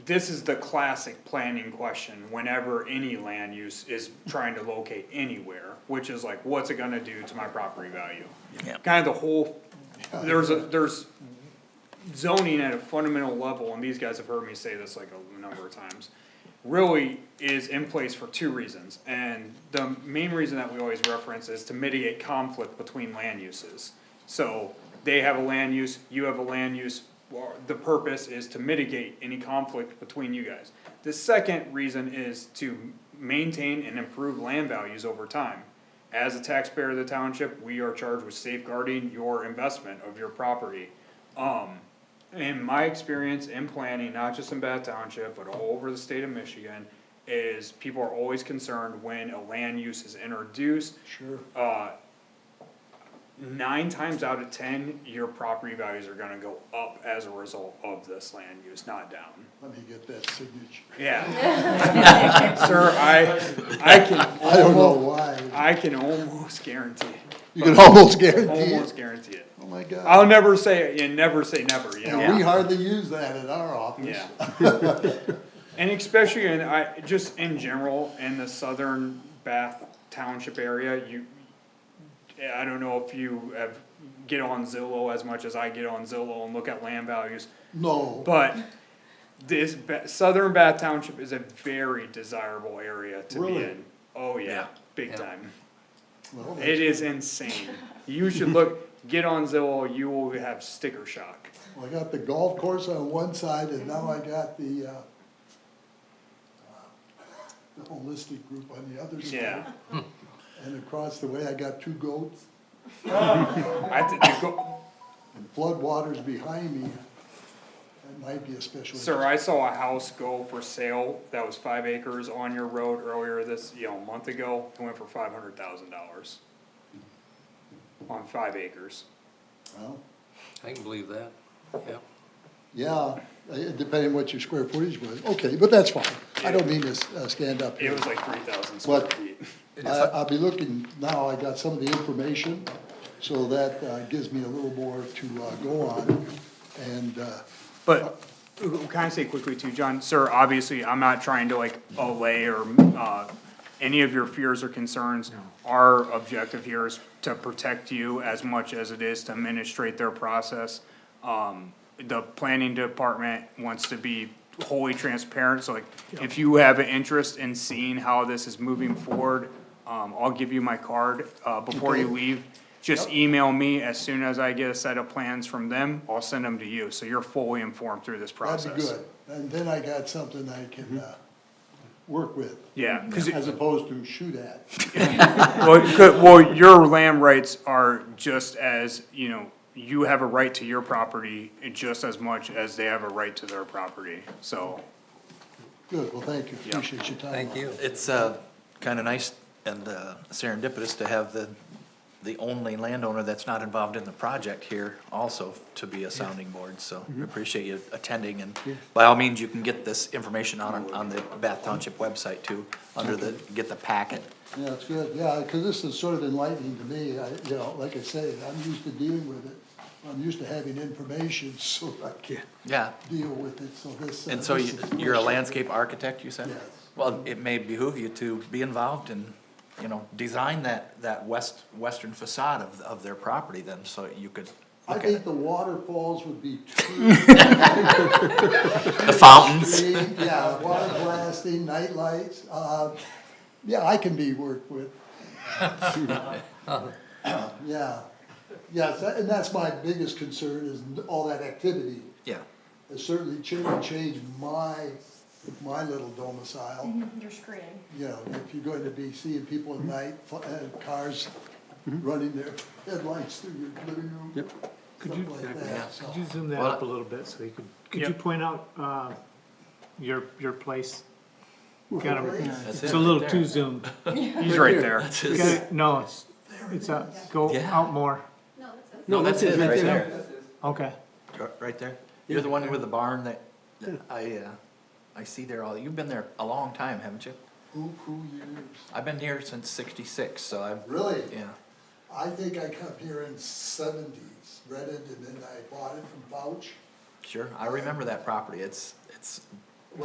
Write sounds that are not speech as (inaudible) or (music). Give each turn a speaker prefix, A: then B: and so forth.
A: This is the classic planning question whenever any land use is trying to locate anywhere, which is like, what's it gonna do to my property value?
B: Yeah.
A: Kind of the whole, there's a, there's zoning at a fundamental level, and these guys have heard me say this like a number of times. Really is in place for two reasons, and the main reason that we always reference is to mitigate conflict between land uses. So they have a land use, you have a land use, well, the purpose is to mitigate any conflict between you guys. The second reason is to maintain and improve land values over time. As a taxpayer of the township, we are charged with safeguarding your investment of your property. Um, in my experience in planning, not just in Bath Township, but all over the state of Michigan, is people are always concerned when a land use is introduced.
C: Sure.
A: Uh, nine times out of ten, your property values are gonna go up as a result of this land use, not down.
C: Let me get that signature.
A: Yeah. Sir, I, I can.
C: I don't know
A: almo-
C: why.
A: I can almost guarantee, it.
C: You can almost guarantee
A: almost
C: it.
A: guarantee it.
C: Oh, my God.
A: I'll never say, and never say never, you know?
C: And we hardly use that in our office.
A: Yeah. And especially in, I, just in general, in the southern Bath Township area, you, I don't know if you have, get on Zillow as much as I get on Zillow and look at land values,
C: No,
A: but this, Ba- southern Bath Township is a very desirable area to be
C: Really?
A: in. Oh, yeah,
B: Yeah.
A: big
B: Yeah.
A: time.
C: well,
A: It is insane. You should look, get on Zillow, you will have sticker shock.
C: I got the golf course on one side and now I got the, uh, the holistic group on the other side.
A: Yeah.
C: And across the way, I got two goats
A: I, th- the go-
C: and floodwaters behind me. That might be a special.
A: Sir, I saw a house go for sale that was five acres on your road earlier this, you know, a month ago, it went for five hundred thousand dollars. On five acres,
C: Well,
D: I can believe that, yeah.
C: Yeah, eh, depending what your square footage was. Okay, but that's fine. I don't mean to s- uh, stand up
A: it
C: here.
A: was like three thousand square
C: What?
A: feet.
C: I, I'll be looking, now I got some of the information, so that uh, gives me a little more to uh, go on. And, uh,
A: But, uh, can I say quickly too, John, sir, obviously, I'm not trying to like allay or, uh, any of your fears or concerns. Our objective here is to protect you as much as it is to administrate their process. Um, the planning department wants to be wholly transparent, so like, if you have an interest in seeing how this is moving forward, um, I'll give you my card, uh, before you
C: Okay.
A: leave. Just email me as soon as I get a set of plans from them, I'll send them to you, so you're fully informed through this process.
C: that'd be good. And then I got something I can, uh, work with,
A: Yeah, 'cause it-
C: as opposed to shoot at.
A: well, it could- well, your land rights are just as, you know, you have a right to your property just as much as they have a right to their property, so.
C: Good, well, thank you.
A: Yeah.
C: Appreciate your time.
D: Thank you.
B: It's, uh, kinda nice and uh, serendipitous to have the, the only landowner that's not involved in the project here also to be a sounding board, so we appreciate you attending and by all means, you can get this information on, on the Bath Township website too, under the, get the packet.
C: Yeah, it's good, yeah, because this is sort of enlightening to me, I, you know, like I say, I'm used to dealing with it. I'm used to having information, (laughs) so I can
B: Yeah,
C: deal with it, so this. uh,
B: and so
C: this
B: you-
C: is-
B: you're a landscape architect, you said?
C: Yes.
B: Well, it may behoove you to be involved in, you know, design that, that west, western facade of, of their property then, so you could
C: I
B: look at
C: think
B: it.
C: the waterfalls would be too
B: The fountains.
C: Street, Yeah, water blasting, night lights, uh, yeah, I can be worked with. Yeah, yes, that- and that's my biggest concern is all that activity.
B: Yeah.
C: It certainly changed, changed my, my little domicile.
E: Your screen.
C: You know, if you're going to be seeing people at night, fl- uh, cars running their headlights through your living room.
F: Yep. Could you,
C: Stuff like that, so.
F: could you zoom that
B: Well,
F: up a little bit so you could, could you
A: Yep.
F: point out, uh, your, your place? Kind of,
B: That's
F: it's
B: it
F: a
B: right
F: little
B: there. (laughs)
F: too zoomed.
A: He's right there.
F: Gotta- No, it's, it's up, go
B: Yeah.
F: out more,
B: No, that's it, right there.
F: okay.
B: You're- Right there? You're the one with the barn that, that I, uh, I see there all, you've been there a long time, haven't you?
C: Who, who years?
B: I've been here since sixty-six, so I've,
C: Really?
B: yeah.
C: I think I come here in seventies, rented, and then I bought it from Bouch.
B: Sure, I remember that property, it's, it's